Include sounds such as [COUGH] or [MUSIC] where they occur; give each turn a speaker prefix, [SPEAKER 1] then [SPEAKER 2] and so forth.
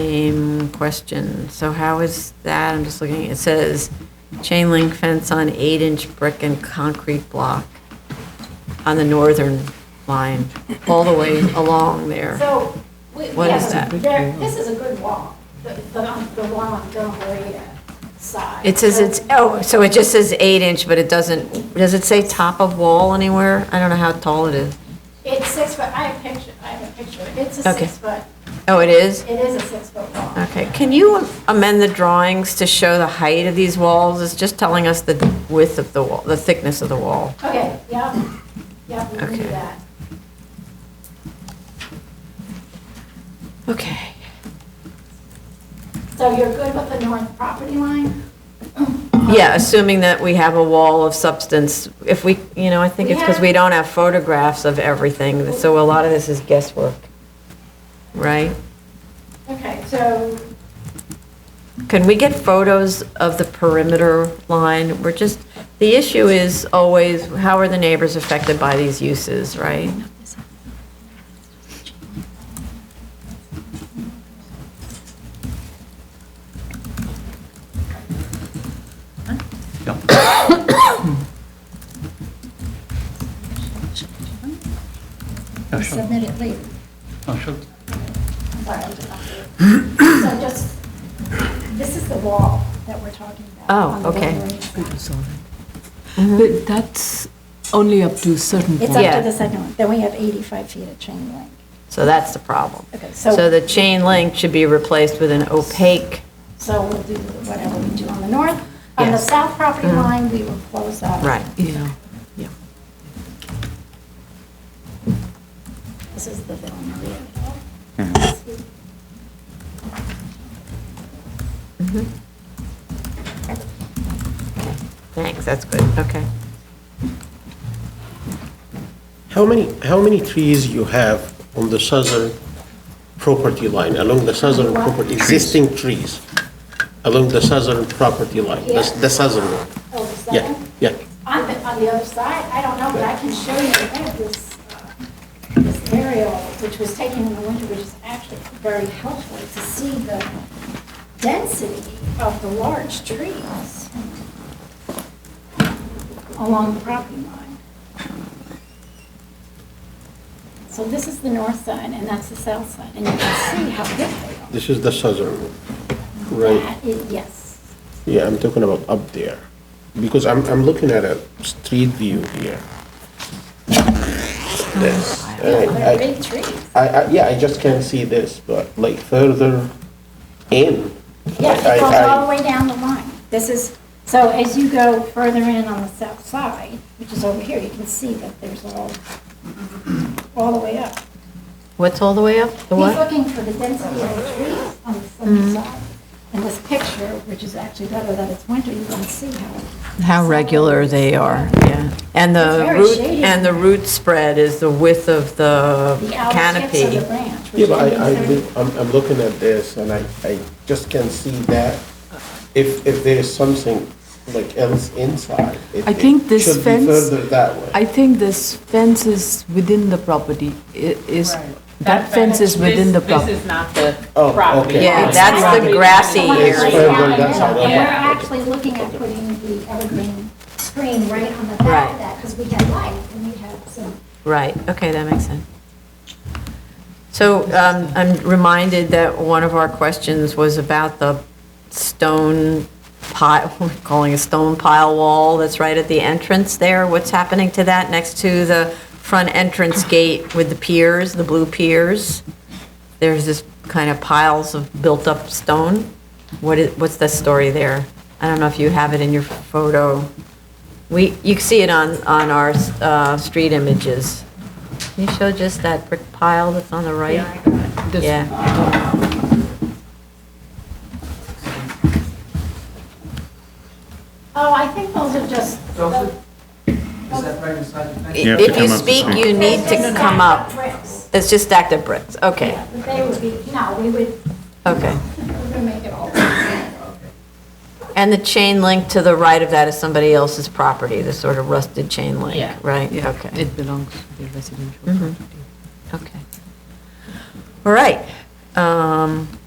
[SPEAKER 1] same question. So how is that, I'm just looking, it says chain link fence on eight-inch brick and concrete block on the northern line, all the way along there.
[SPEAKER 2] So, we,
[SPEAKER 1] What is
[SPEAKER 2] yeah,
[SPEAKER 1] that?
[SPEAKER 2] there- this is a good wall, the, the, the wall on Del Maria side.
[SPEAKER 1] It says it's, oh, so it just says eight-inch, but it doesn't, does it say top of wall anywhere? I don't know how tall it is.
[SPEAKER 2] It's six foot, I have picture, I have a picture, it's a
[SPEAKER 1] Okay.
[SPEAKER 2] six foot,
[SPEAKER 1] Oh, it is?
[SPEAKER 2] it is a six foot wall.
[SPEAKER 1] Okay, can you amend the drawings to show the height of these walls? It's just telling us the width of the wall, the thickness of the wall.
[SPEAKER 2] Okay, yep, yep, we can do
[SPEAKER 1] Okay.
[SPEAKER 2] that.
[SPEAKER 1] Okay.
[SPEAKER 2] So you're good with the north property line?
[SPEAKER 1] Yeah, assuming that we have a wall of substance, if we, you know, I think it's because we don't have photographs of everything, so a lot of this is guesswork, right?
[SPEAKER 2] Okay, so,
[SPEAKER 1] Can we get photos of the perimeter line? We're just, the issue is always, how are the neighbors affected by these uses, right?
[SPEAKER 3] Oh, sure.
[SPEAKER 4] Submit it later.
[SPEAKER 3] Oh, sure.
[SPEAKER 2] sorry, I'm just, so just, this is the wall that we're talking about.
[SPEAKER 1] Oh,
[SPEAKER 2] on the
[SPEAKER 1] okay.
[SPEAKER 2] Del Maria side.
[SPEAKER 5] It's all right. But that's only up to a certain
[SPEAKER 2] It's
[SPEAKER 5] point.
[SPEAKER 2] up
[SPEAKER 1] Yeah.
[SPEAKER 2] to the second one, then we have 85 feet of chain link.
[SPEAKER 1] So that's the problem.
[SPEAKER 2] Okay, so.
[SPEAKER 1] So the chain link should be replaced with an opaque,
[SPEAKER 2] So we'll do whatever we do on the north. On the
[SPEAKER 1] Yes. Mm-hmm.
[SPEAKER 2] south property line, we will close up.
[SPEAKER 1] right?
[SPEAKER 5] Yeah,
[SPEAKER 2] This is the Villa Maria.
[SPEAKER 1] Thanks, that's good, okay.
[SPEAKER 6] How many, how many trees you have on the southern property line, along the southern
[SPEAKER 2] What?
[SPEAKER 6] property, existing trees along the southern property line, the the southern one?
[SPEAKER 2] Oh, is that
[SPEAKER 6] Yeah,
[SPEAKER 2] it?
[SPEAKER 6] yeah.
[SPEAKER 2] On the, on the other side, I don't know, but I can show you, I have this, uh, this aerial, which was taken in the winter, which is actually very helpful to see the density of the large trees along the property line. So this is the north side, and that's the south side, and you can see how big they are.
[SPEAKER 6] This is the southern one, right?
[SPEAKER 2] That is- Yes.
[SPEAKER 6] Yeah, I'm talking about up there, because I'm, I'm looking at a street view here. This.
[SPEAKER 2] Yeah,
[SPEAKER 6] and I-
[SPEAKER 2] they're big trees.
[SPEAKER 6] I, I, yeah, I just can't see this, but like further in.
[SPEAKER 2] Yeah,
[SPEAKER 6] I-
[SPEAKER 2] it goes
[SPEAKER 6] I-
[SPEAKER 2] all the way down the line. This is, so as you go further in on the south side, which is over here, you can see that there's all, all the way up.
[SPEAKER 1] What's all the way up? The
[SPEAKER 2] He's
[SPEAKER 1] what? Mm-hmm.
[SPEAKER 2] looking for the density of the trees on the southern side. In this picture, which is actually better that it's winter, you can see how,
[SPEAKER 1] How regular they are, yeah. And
[SPEAKER 2] It's
[SPEAKER 1] the
[SPEAKER 2] very
[SPEAKER 1] root,
[SPEAKER 2] shady.
[SPEAKER 1] and the root spread is the width of the
[SPEAKER 2] the outer tips of
[SPEAKER 1] canopy.
[SPEAKER 2] the branch. which
[SPEAKER 6] Yeah, but I, I,
[SPEAKER 2] means they're-
[SPEAKER 6] look- I'm, I'm looking at this and I, I just can't see that. If, if there is something like else inside. it-
[SPEAKER 5] I think this
[SPEAKER 6] it should be
[SPEAKER 5] fence-
[SPEAKER 6] Further that way.
[SPEAKER 5] I think this fence is within the property, i- is, that fence is within the
[SPEAKER 7] This- This
[SPEAKER 5] property.
[SPEAKER 7] is not the
[SPEAKER 6] Oh,
[SPEAKER 7] property.
[SPEAKER 6] okay.
[SPEAKER 1] Yeah,
[SPEAKER 7] It's
[SPEAKER 1] that's the
[SPEAKER 7] property.
[SPEAKER 1] grassy
[SPEAKER 2] Someone
[SPEAKER 6] It's
[SPEAKER 2] laid
[SPEAKER 6] further
[SPEAKER 2] down in the
[SPEAKER 6] that's how
[SPEAKER 2] middle, and
[SPEAKER 6] that-
[SPEAKER 2] We're
[SPEAKER 6] okay.
[SPEAKER 2] actually looking at putting the evergreen screen right on the back
[SPEAKER 1] Right.
[SPEAKER 2] of that, because we had light and we had some
[SPEAKER 1] Right, okay, that makes sense. So um, I'm reminded that one of our questions was about the stone pile, [LAUGHS] we're calling a stone pile wall that's right at the entrance there. What's happening to that next to the front entrance gate with the piers, the blue piers? There's this kind of piles of built-up stone. What is, what's the story there? I don't know if you have it in your photo. We, you can see it on, on our uh, street images. Can you show just that brick pile that's on the right?
[SPEAKER 5] This-
[SPEAKER 1] Yeah,
[SPEAKER 2] Oh, I think those are just,
[SPEAKER 8] Joseph, is that right inside the fence?
[SPEAKER 3] You have to
[SPEAKER 1] if you
[SPEAKER 3] come up to
[SPEAKER 1] speak,
[SPEAKER 3] speak.
[SPEAKER 1] you need to
[SPEAKER 2] They're just
[SPEAKER 1] come
[SPEAKER 2] stacked
[SPEAKER 1] up.
[SPEAKER 2] bricks.
[SPEAKER 1] It's just stacked up bricks, okay,
[SPEAKER 2] Yeah, but they would be, no, we would,
[SPEAKER 1] okay.
[SPEAKER 2] we would make it all.
[SPEAKER 1] And the chain link to the right of that is somebody else's property, the sort of rusted chain
[SPEAKER 7] Yeah.
[SPEAKER 1] link, right?
[SPEAKER 5] Yeah,
[SPEAKER 1] Okay,
[SPEAKER 5] it belongs to the residential property.
[SPEAKER 1] okay. All right. Um,